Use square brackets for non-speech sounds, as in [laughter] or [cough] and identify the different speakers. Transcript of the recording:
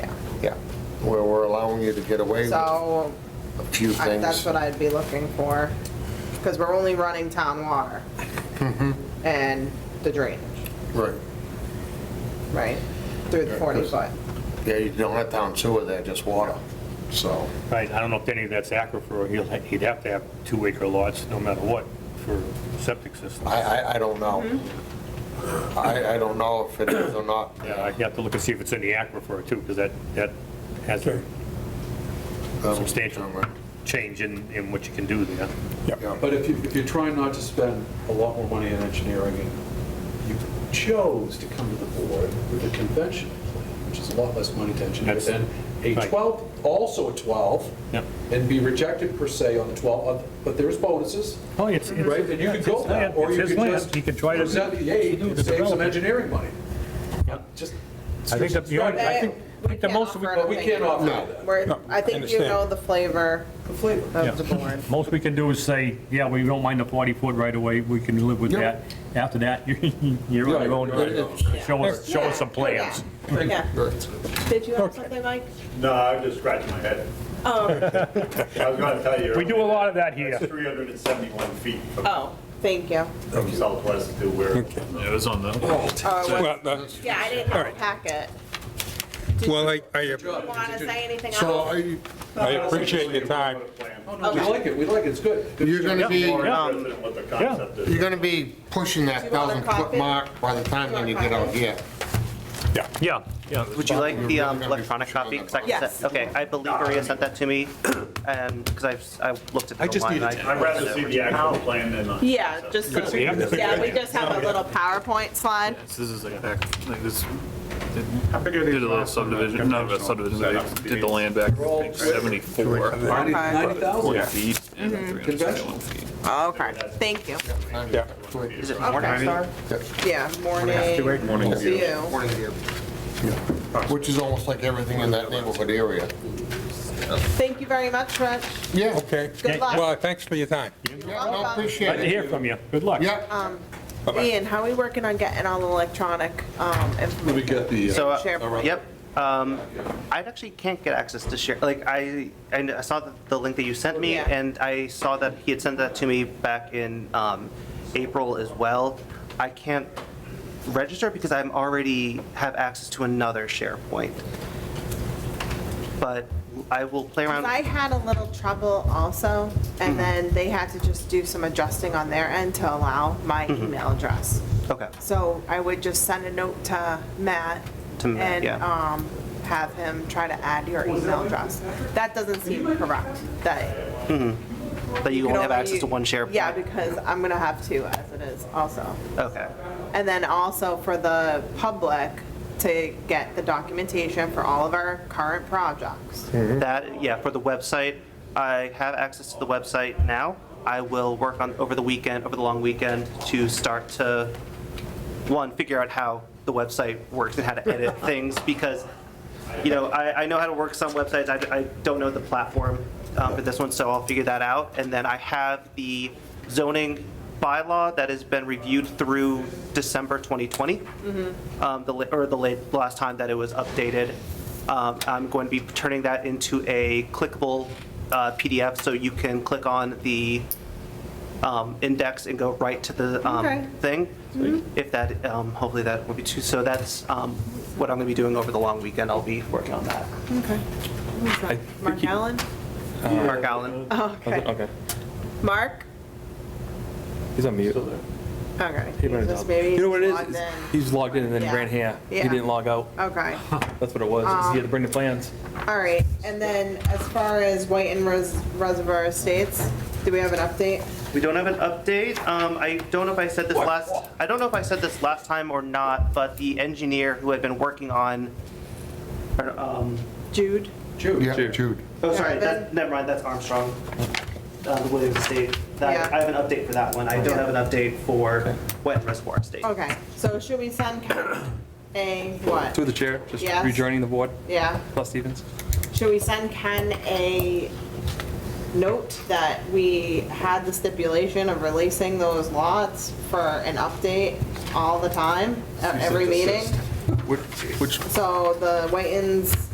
Speaker 1: yeah, where we're allowing you to get away with a
Speaker 2: So
Speaker 1: few
Speaker 2: I- that's
Speaker 1: things.
Speaker 2: what I'd be looking for, because we're only running town water
Speaker 1: Mm-hmm.
Speaker 2: and the drainage,
Speaker 1: Right.
Speaker 2: right, through the
Speaker 1: Yeah,
Speaker 2: 40
Speaker 1: because-
Speaker 2: foot.
Speaker 1: Yeah, you don't have town sewer there, just water, so.
Speaker 3: Right, I don't know if any of that's aquifer, he'll, ha- he'd have to have two acre lots, no matter what, for septic system.
Speaker 1: I, I, I don't know.
Speaker 2: Mm-hmm.
Speaker 1: I, I don't know if it is or not.
Speaker 3: Yeah, I'd have to look and see if it's in the aquifer too, because that, that has a substantial change in, in what you can do there.
Speaker 1: Yeah.
Speaker 4: But if you, if you're trying not to spend a lot more money on engineering, and you chose to come to the board with a conventional plan, which is a lot less money to engineer
Speaker 3: That's-
Speaker 4: than a
Speaker 3: right.
Speaker 4: 12, also a 12,
Speaker 3: Yep.
Speaker 4: and be rejected per se on the 12, uh, but there's bonuses,
Speaker 3: Oh, it's, it's-
Speaker 4: right? And you could
Speaker 3: it's
Speaker 4: go
Speaker 3: his
Speaker 4: that,
Speaker 3: land,
Speaker 4: or
Speaker 3: it's
Speaker 4: you
Speaker 3: his
Speaker 4: could
Speaker 3: land.
Speaker 4: just
Speaker 3: He could try to-
Speaker 4: present the aid and
Speaker 3: to
Speaker 4: save some
Speaker 3: develop it.
Speaker 4: engineering money. Just.
Speaker 3: I think that the only- I think- I think the
Speaker 2: We can't
Speaker 3: most we-
Speaker 2: offer
Speaker 4: But we
Speaker 2: anything.
Speaker 4: can't offer that.
Speaker 2: We're,
Speaker 5: No,
Speaker 2: I
Speaker 5: I
Speaker 2: think you
Speaker 5: understand.
Speaker 2: know the flavor
Speaker 4: The flavor.
Speaker 2: of the
Speaker 3: Yeah.
Speaker 2: board.
Speaker 3: Most we can do is say, yeah, we don't mind the 40 foot right away, we can live with that. After that, [laughs] you- you're on your own. Show us, show us some plans.
Speaker 2: Yeah, yeah. Did you have something, Mike?
Speaker 6: No, I was just scratching my head. [laughs] I was gonna tell you.
Speaker 3: We do a lot of that
Speaker 6: It's
Speaker 3: here.
Speaker 6: 371 feet from-
Speaker 2: Oh, thank you.
Speaker 6: from southwest to where. It was on the.
Speaker 2: Oh, it was-
Speaker 5: Well, that-
Speaker 2: Yeah, I didn't have a
Speaker 5: Alright.
Speaker 2: packet.
Speaker 5: Well, I, I
Speaker 2: Want to say anything
Speaker 1: So
Speaker 2: else?
Speaker 1: are you,
Speaker 5: I appreciate your time.
Speaker 4: We like it, we like it, it's good.
Speaker 1: you're gonna be,
Speaker 6: More
Speaker 1: you're
Speaker 6: interested in what the concept is.
Speaker 1: gonna be pushing
Speaker 2: Do
Speaker 1: that
Speaker 2: you want a
Speaker 1: thousand foot
Speaker 2: copy?
Speaker 1: mark by the time when you get out here.
Speaker 3: Yeah, yeah.
Speaker 7: Would you like the um,
Speaker 1: We're gonna be
Speaker 7: electronic
Speaker 1: pushing on
Speaker 7: copy?
Speaker 1: that
Speaker 7: 'Cause I can
Speaker 2: Yes.
Speaker 7: send- Okay, I believe Maria sent that to me, and, because I've, I looked at
Speaker 5: I
Speaker 7: it
Speaker 5: just
Speaker 7: online.
Speaker 5: need it.
Speaker 7: I-
Speaker 6: I'd rather see the actual plan than. the
Speaker 2: Yeah,
Speaker 6: concept.
Speaker 2: just,
Speaker 3: see you.
Speaker 2: yeah, we just have a little PowerPoint slide.
Speaker 8: This is like back, like this,
Speaker 6: How big are
Speaker 8: did a
Speaker 6: these
Speaker 8: little
Speaker 6: lots?
Speaker 8: subdivision, not a subdivision, they did the land back in 74,
Speaker 4: 90,000.
Speaker 8: 40 feet and
Speaker 2: Mm-hmm.
Speaker 8: 371 feet.
Speaker 2: Okay, thank you.
Speaker 5: Yeah.
Speaker 7: Is it
Speaker 2: Okay.
Speaker 7: Morning Star?
Speaker 2: Yeah, morning.
Speaker 8: Morning.
Speaker 2: to you.
Speaker 1: Morning, Dave. Which is almost like everything in that neighborhood area.
Speaker 2: Thank you very much, Rich.
Speaker 1: Yeah.
Speaker 5: Okay.
Speaker 2: Good luck.
Speaker 5: Well, thanks for your time.
Speaker 1: Yeah, no, appreciate
Speaker 3: Glad to
Speaker 1: it.
Speaker 3: hear from you. Good luck.
Speaker 2: Um,
Speaker 1: Yeah,
Speaker 5: Bye-bye.
Speaker 2: Ian, how are we working on getting all the electronic um,
Speaker 4: Let me
Speaker 2: information?
Speaker 4: get the. uh,
Speaker 7: So,
Speaker 2: Share.
Speaker 7: uh, yep. um, I actually can't get access to share, like, I, I kn- I saw the- the link that you sent me,
Speaker 2: Yeah.
Speaker 7: and I saw that he had sent that to me back in um, April as well. I can't register because I'm already have access to another SharePoint. But I will play around.
Speaker 2: I had a little trouble also,
Speaker 7: Mm-hmm.
Speaker 2: and then they had to just do some adjusting on their end to allow my email address.
Speaker 7: Mm-hmm. Okay.
Speaker 2: So I would just send a note to Matt
Speaker 7: To Matt,
Speaker 2: and
Speaker 7: yeah.
Speaker 2: um, have him try to add your email address. That doesn't seem correct, that
Speaker 7: That you
Speaker 2: can
Speaker 7: only have
Speaker 2: only-
Speaker 7: access to one SharePoint?
Speaker 2: Yeah, because I'm going to have two as it is also.
Speaker 7: Okay,
Speaker 2: And then also for the public to get the documentation for all of our current projects.
Speaker 9: Hmm.
Speaker 7: that, yeah, for the website, I have access to the website now. I will work on, over the weekend, over the long weekend, to start to, one, figure out how the website works and how to edit things, because, you know, I, I know how to work some websites, I, I don't know the platform um, for this one, so I'll figure that out. And then I have the zoning bylaw that has been reviewed through December 2020 um, the, la- or the late, last time that it was updated. Um, I'm going to be turning that into a clickable uh, PDF, so you can click on the um, index and go right to the um,
Speaker 2: Okay.
Speaker 7: thing. If that, um, hopefully that will be too, so that's um, what I'm going to be doing over the long weekend. I'll be working on that.
Speaker 2: Okay. Who's that? Mark Allen?
Speaker 7: Mark Allen?
Speaker 2: Okay. Mark?
Speaker 9: He's on mute.
Speaker 2: Okay.
Speaker 9: He went
Speaker 2: Just
Speaker 9: up.
Speaker 2: maybe
Speaker 9: You know what it
Speaker 2: he's
Speaker 9: is?
Speaker 2: logged
Speaker 9: It's-
Speaker 2: in.
Speaker 9: He's logged in and then
Speaker 2: Yeah.
Speaker 9: he ran here. He
Speaker 2: Yeah. Uh-huh.
Speaker 9: didn't log out.
Speaker 2: Okay,
Speaker 9: That's what it was. It's- He had to bring the plans.
Speaker 2: all right. And then as far as White and Res- Reservoir Estates, do we have an update?
Speaker 7: We don't have an update. Um, I don't know if I said this last, I don't know if I said this last time or not, but the engineer who had been working on, or, um,
Speaker 2: Jude?
Speaker 1: yeah, Jude.
Speaker 7: Oh, sorry,
Speaker 2: Yeah,
Speaker 7: that, never mind, that's Armstrong, uh, the Williams Estate. That,
Speaker 2: Yeah.
Speaker 7: I have an update for that one, I don't have an update for Wet and Reservoir Estate.
Speaker 2: Okay, so should we send Ken a what?
Speaker 9: Through the chair, just
Speaker 2: Yes.
Speaker 9: rejoining the board,
Speaker 2: Yeah,
Speaker 9: Plus Stevens.
Speaker 2: should we send Ken a note that we had the stipulation of releasing those lots for an update all the time at every meeting?
Speaker 9: Which, which
Speaker 2: So the Whitens